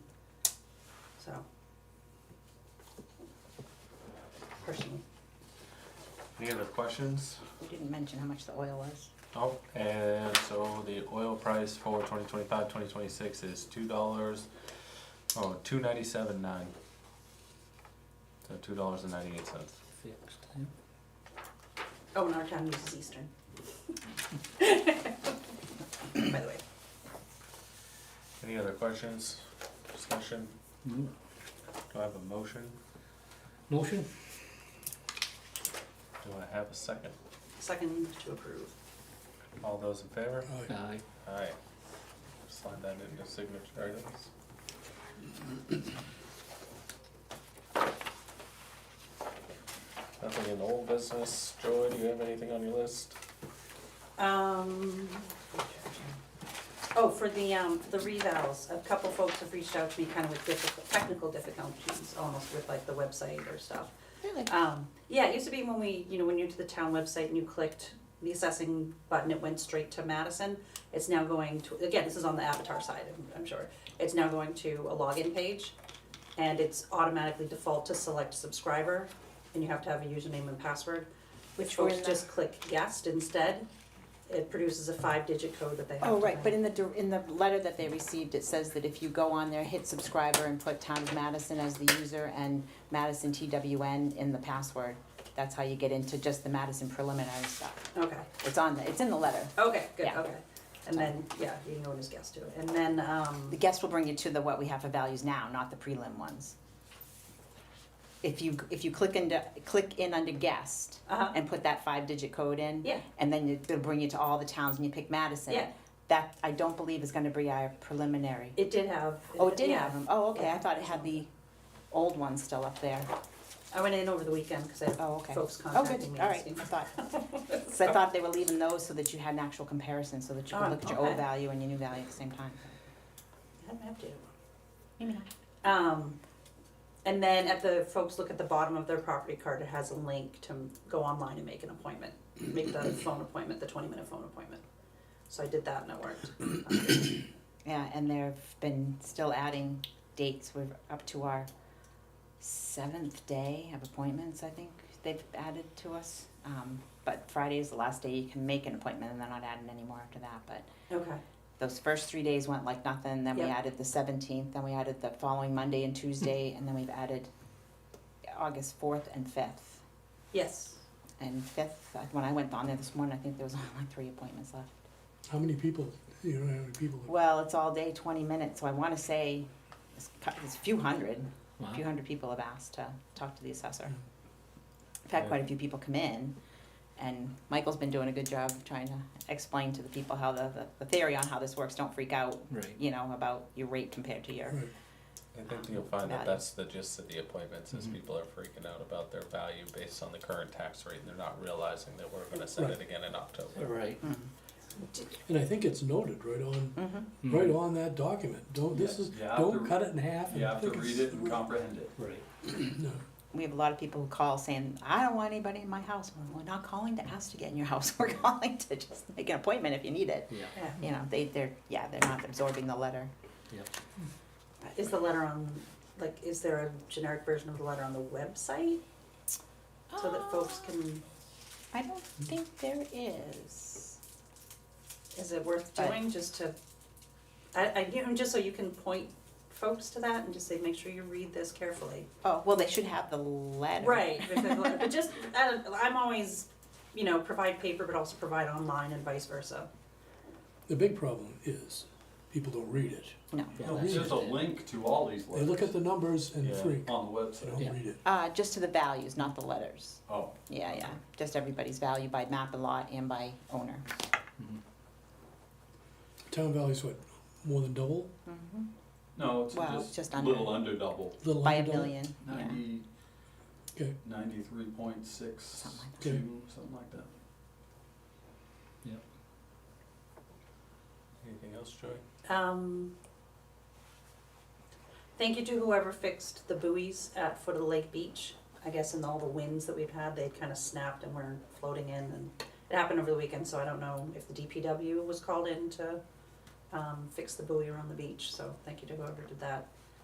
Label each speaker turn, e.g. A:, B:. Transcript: A: so. Personally,
B: Any other questions?
A: you didn't mention how much the oil was.
B: Oh, and so the oil price for 2025, 2026 is two dollars, oh, two ninety seven nine. So two dollars and ninety eight cents.
C: Fixed, yeah.
A: Oh, and our town uses Eastern. By the way,
B: Any other questions? Discussion?
C: Mm.
B: Do I have a motion?
C: Motion?
B: Do I have a second?
A: second to approve.
B: All those in favor?
C: Aye.
B: Aye. Slide that into signature items. Nothing in the old business. Joy, do you have anything on your list?
A: Um, oh, for the, um, for the revals, a couple folks have reached out to me kind of with difficult, technical difficulties, almost with like the website or stuff.
D: Really?
A: Um, yeah, it used to be when we, you know, when you're to the town website and you clicked the assessing button, it went straight to Madison. It's now going to, again, this is on the Avatar side, I'm- I'm sure. It's now going to a login page and it's automatically default to select subscriber and you have to have a username and password. Which
D: Which we're
A: folks
D: in the-
A: just click guest instead. It produces a five-digit code that they have to.
D: Oh, right,
A: have.
D: but in the, dir- in the letter that they received, it says that if you go on there, hit subscriber and put Tom Madison as the user and Madison TWN in the password. That's how you get into just the Madison preliminary stuff.
A: Okay,
D: It's on, the it's in the letter.
A: okay, good,
D: Yeah.
A: okay. And then, yeah, you can go in as guest too. And then, um.
D: The guest will bring you to the what we have for values now, not the prelim ones. If you, if you click into, click in under guest
A: Uh-huh.
D: and put that five-digit code in.
A: Yeah.
D: And then it- it'll bring you to all the towns and you pick Madison.
A: Yeah.
D: That, I don't believe is gonna be our preliminary.
A: It did have.
D: Oh, it did
A: yeah.
D: have them. Oh, okay. I thought it had the old one still up there.
A: I went in over the weekend because I had
D: Oh, okay.
A: folks
D: Oh, good.
A: contacting me.
D: All right. I
A: asking-
D: thought, so I thought they were leaving those so that you had an actual comparison, so that you could
A: Oh,
D: look at your
A: okay.
D: old value and your new value at the same time.
A: I haven't updated one. Um, and then at the, folks look at the bottom of their property card, it has a link to go online and make an appointment, make the phone appointment, the twenty minute phone appointment. So I did that and it worked.
D: Yeah, and they've been still adding dates. We're up to our seventh day of appointments, I think they've added to us. Um, but Friday is the last day you can make an appointment, and they're not adding any more after that, but
A: Okay,
D: those first three days went like nothing. Then we
A: Yep.
D: added the seventeenth. Then we added the following Monday and Tuesday, and then we've added August fourth and fifth.
A: yes.
D: And fifth, uh, when I went on there this morning, I think there was only like three appointments left.
E: How many people, you know, how many people?
C: Hmm.
D: Well, it's all day, twenty minutes. So I want to say it's, cou- it's a few hundred, a few
C: Wow.
D: hundred people have asked to talk to the assessor.
E: Mm.
D: I've had
B: Yeah.
D: quite a few people come in, and Michael's been doing a good job of trying to explain to the people how the, the, the theory on how this works. Don't freak out,
C: Right.
D: you know, about your rate compared to your
E: Right,
B: I think you'll find that
D: Value.
B: that's the gist of the appointments, is
C: Mhm.
B: people are freaking out about their value based on the current tax rate, and they're not realizing that we're gonna send it again in October.
C: Right.
D: hmm.
E: and I think it's noted right on,
D: Mm-hmm.
C: Mm.
E: right on that document, don't, this is,
F: Yeah, you have
E: don't
F: to-
E: cut it in half.
F: You
E: and
F: have to
E: think
F: read it
E: it's-
F: and comprehend it.
C: Right.
E: No,
D: We have a lot of people who call saying, I don't want anybody in my house. Well, We're not calling to ask to get in your house. We're calling to just make an appointment if you need it.
C: Yeah.
A: Yeah.
D: You know, they, they're, yeah, they're not absorbing the letter.
A: Is the letter on, like, is there a generic version of the letter on the website so that folks can,
D: I don't think there is.
A: is it worth
D: I-
A: doing just to? I, I, you know, just so you can point folks to that and just say, make sure you read this carefully.
D: Oh, well, they should have the letter.
A: Right, with the letter, but just, uh, I'm always, you know, provide paper, but also provide online and vice versa.
E: the big problem is, people don't read it,
D: No.
C: Yeah, that's
F: There's just a
C: it.
F: link to all these
E: they look at
F: letters
E: the numbers and
B: Yeah.
E: freak,
F: on the
E: they
F: website.
C: Yeah.
E: don't read it.
D: Uh, just to the values, not the letters.
F: Oh,
D: Yeah, yeah. Just everybody's value by map and lot and by owner.
C: Mhm.
E: Town value's what, more than double,
D: Mm-hmm.
F: no, it's
D: Well,
F: just
D: just
F: a
D: under.
F: little under double,
E: little
D: By
E: under
D: a
E: double?
D: million. Yeah.
F: ninety,
E: Okay.
F: ninety-three point six
E: that.
F: two, something like that.
B: Anything else, Joy?
A: Um, thank you to whoever fixed the buoys at foot of the lake beach. I guess in all the winds that we've had, they kind of snapped and were floating in and it happened over the weekend, so I don't know if the DPW was called in to um, fix the buoy around the beach, so thank you to whoever did that.